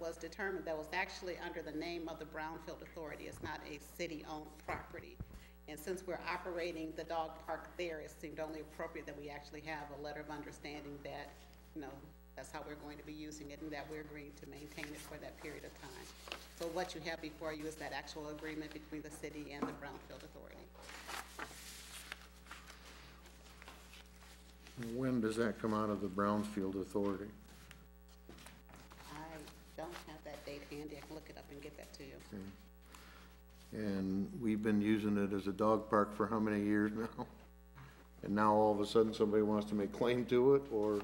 was determined that was actually under the name of the Brownfield Authority. It's not a city-owned property. And since we're operating the dog park there, it seemed only appropriate that we actually have a letter of understanding that, you know, that's how we're going to be using it and that we're agreeing to maintain it for that period of time. So what you have before you is that actual agreement between the city and the Brownfield Authority. When does that come out of the Brownfield Authority? I don't have that date handy. I can look it up and get that to you. And we've been using it as a dog park for how many years now? And now all of a sudden, somebody wants to make claim to it or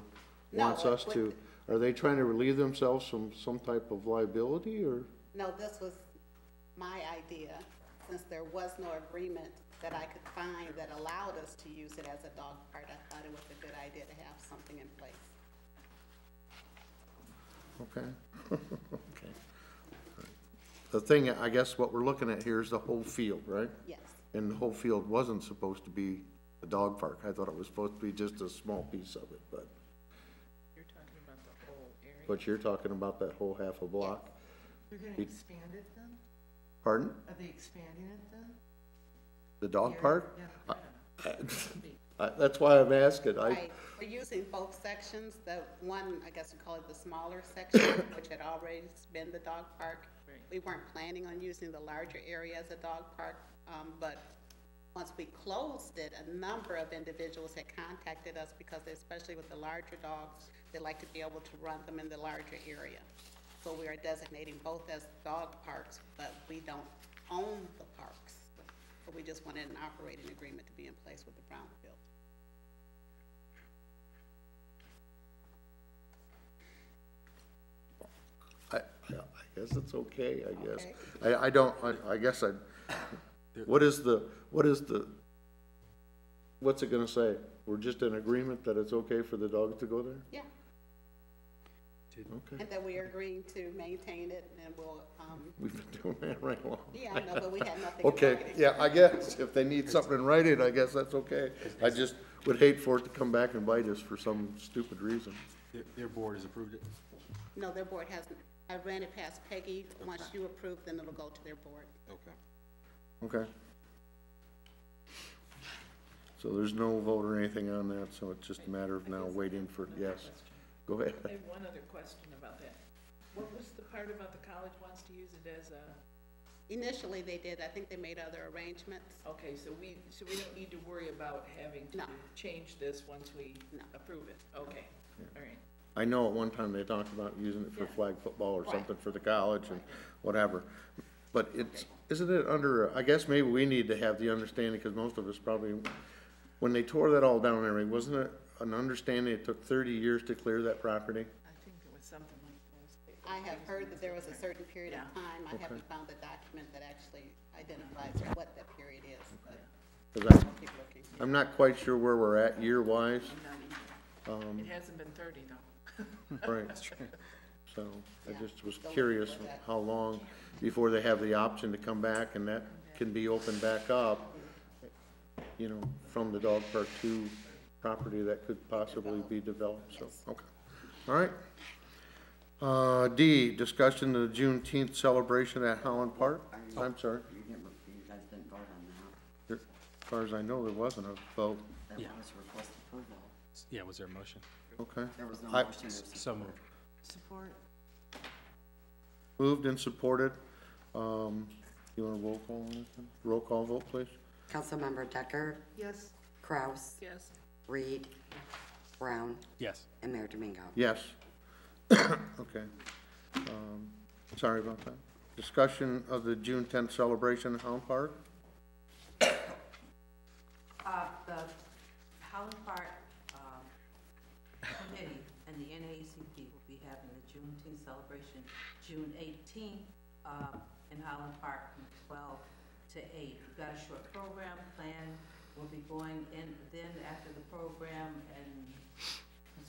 wants No, us what- to? Are they trying to relieve themselves from some type of liability or? No, this was my idea, since there was no agreement that I could find that allowed us to use it as a dog park. I thought it was a good idea to have something in place. Okay. Okay. The thing, I guess what we're looking at here is the whole field, right? Yes, And the whole field wasn't supposed to be a dog park. I thought it was supposed to be just a small piece of it, but. You're talking about the whole area. But you're talking about that whole half a block. They're gonna It- expand it then? Pardon? Are they expanding it then? The dog park? Yeah, I- yeah. I- That's why I'm asking. I, right. We're using both sections, the one, I guess we call it the smaller section, which had already been the dog park. Right. We weren't planning on using the larger area as a dog park, um, but once we closed it, a number of individuals had contacted us because especially with the larger dogs, they like to be able to run them in the larger area. So we are designating both as dog parks, but we don't own the parks. But we just wanted an operating agreement to be in place with the Brownfield. I, I guess it's okay, I guess. I, I don't, I, I guess I, what is the, what is the, what's it gonna say? We're just in agreement that it's okay for the dog to go there? Yeah. Okay. And that we are agreeing to maintain it and we'll, um, We've been doing that right along. yeah, I know, but we had nothing. in Okay, writing. yeah, I guess if they need something in writing, I guess that's okay. I just would hate for it to come back and bite us for some stupid reason. Their, their board has approved it? No, their board hasn't. I ran it past Peggy. Once you approve, then it'll go to their board. Okay. Okay. So there's no vote or anything on that, so it's just a matter of now waiting for, yes. Go ahead. I have one other question about that. What was the part about the college wants to use it as a, Initially, they did. I think they made other arrangements. okay, so we, so we don't need to worry about having to No. change this once we No. approve it? Okay, all right. I know at one time they talked about using it for flag football or something for the college and whatever. But it's, isn't it under, I guess maybe we need to have the understanding, because most of us probably, when they tore that all down and everything, wasn't it an understanding it took thirty years to clear that property? I think it was something like those. I have heard that there was a certain period of Yeah. time. I haven't found the document that actually identifies what that period is, but 'Cause I- I'll keep looking. I'm not quite sure where we're at year-wise, Not either. It hasn't been thirty though. right? So I Yeah. just was Don't curious look for that. how long before they have the option to come back and that can be opened back up, you know, from the dog park to property that could possibly be developed, so, okay. All right. Uh, D, discussion of the Juneteenth celebration at Holland Park. I'm sorry, Oh. You didn't, you guys didn't vote on that. as far as I know, there wasn't a vote, That Yeah. was request approval. Yeah, was there a motion? okay. There was no I- motion. there was- So moved. Support, Moved and supported. Um, you want a roll call on this one? Roll call vote, please? Councilmember Decker, yes, Kraus, Yes, Reed, Brown, Yes. and Mayor Domingo. Yes. Okay. Um, Sorry about that. Discussion of the June tenth celebration in Hound Park? Uh, the Holland Park, um, committee and the NAACP will be having the Juneteenth celebration, June eighteenth, um, in Holland Park from twelve to eight. We've got a short program planned, we'll be going in, then after the program and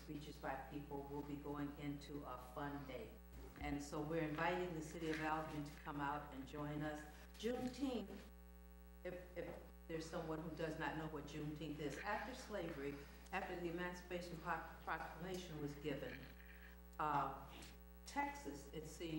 speeches by people, we'll be going into a fun day. And so we're inviting the city of Albion to come out and join us. Juneteenth if, if there's someone who does not know what Juneteenth is, after slavery, after the Emancipation Pro- Proclamation was given, uh, Texas, it seems.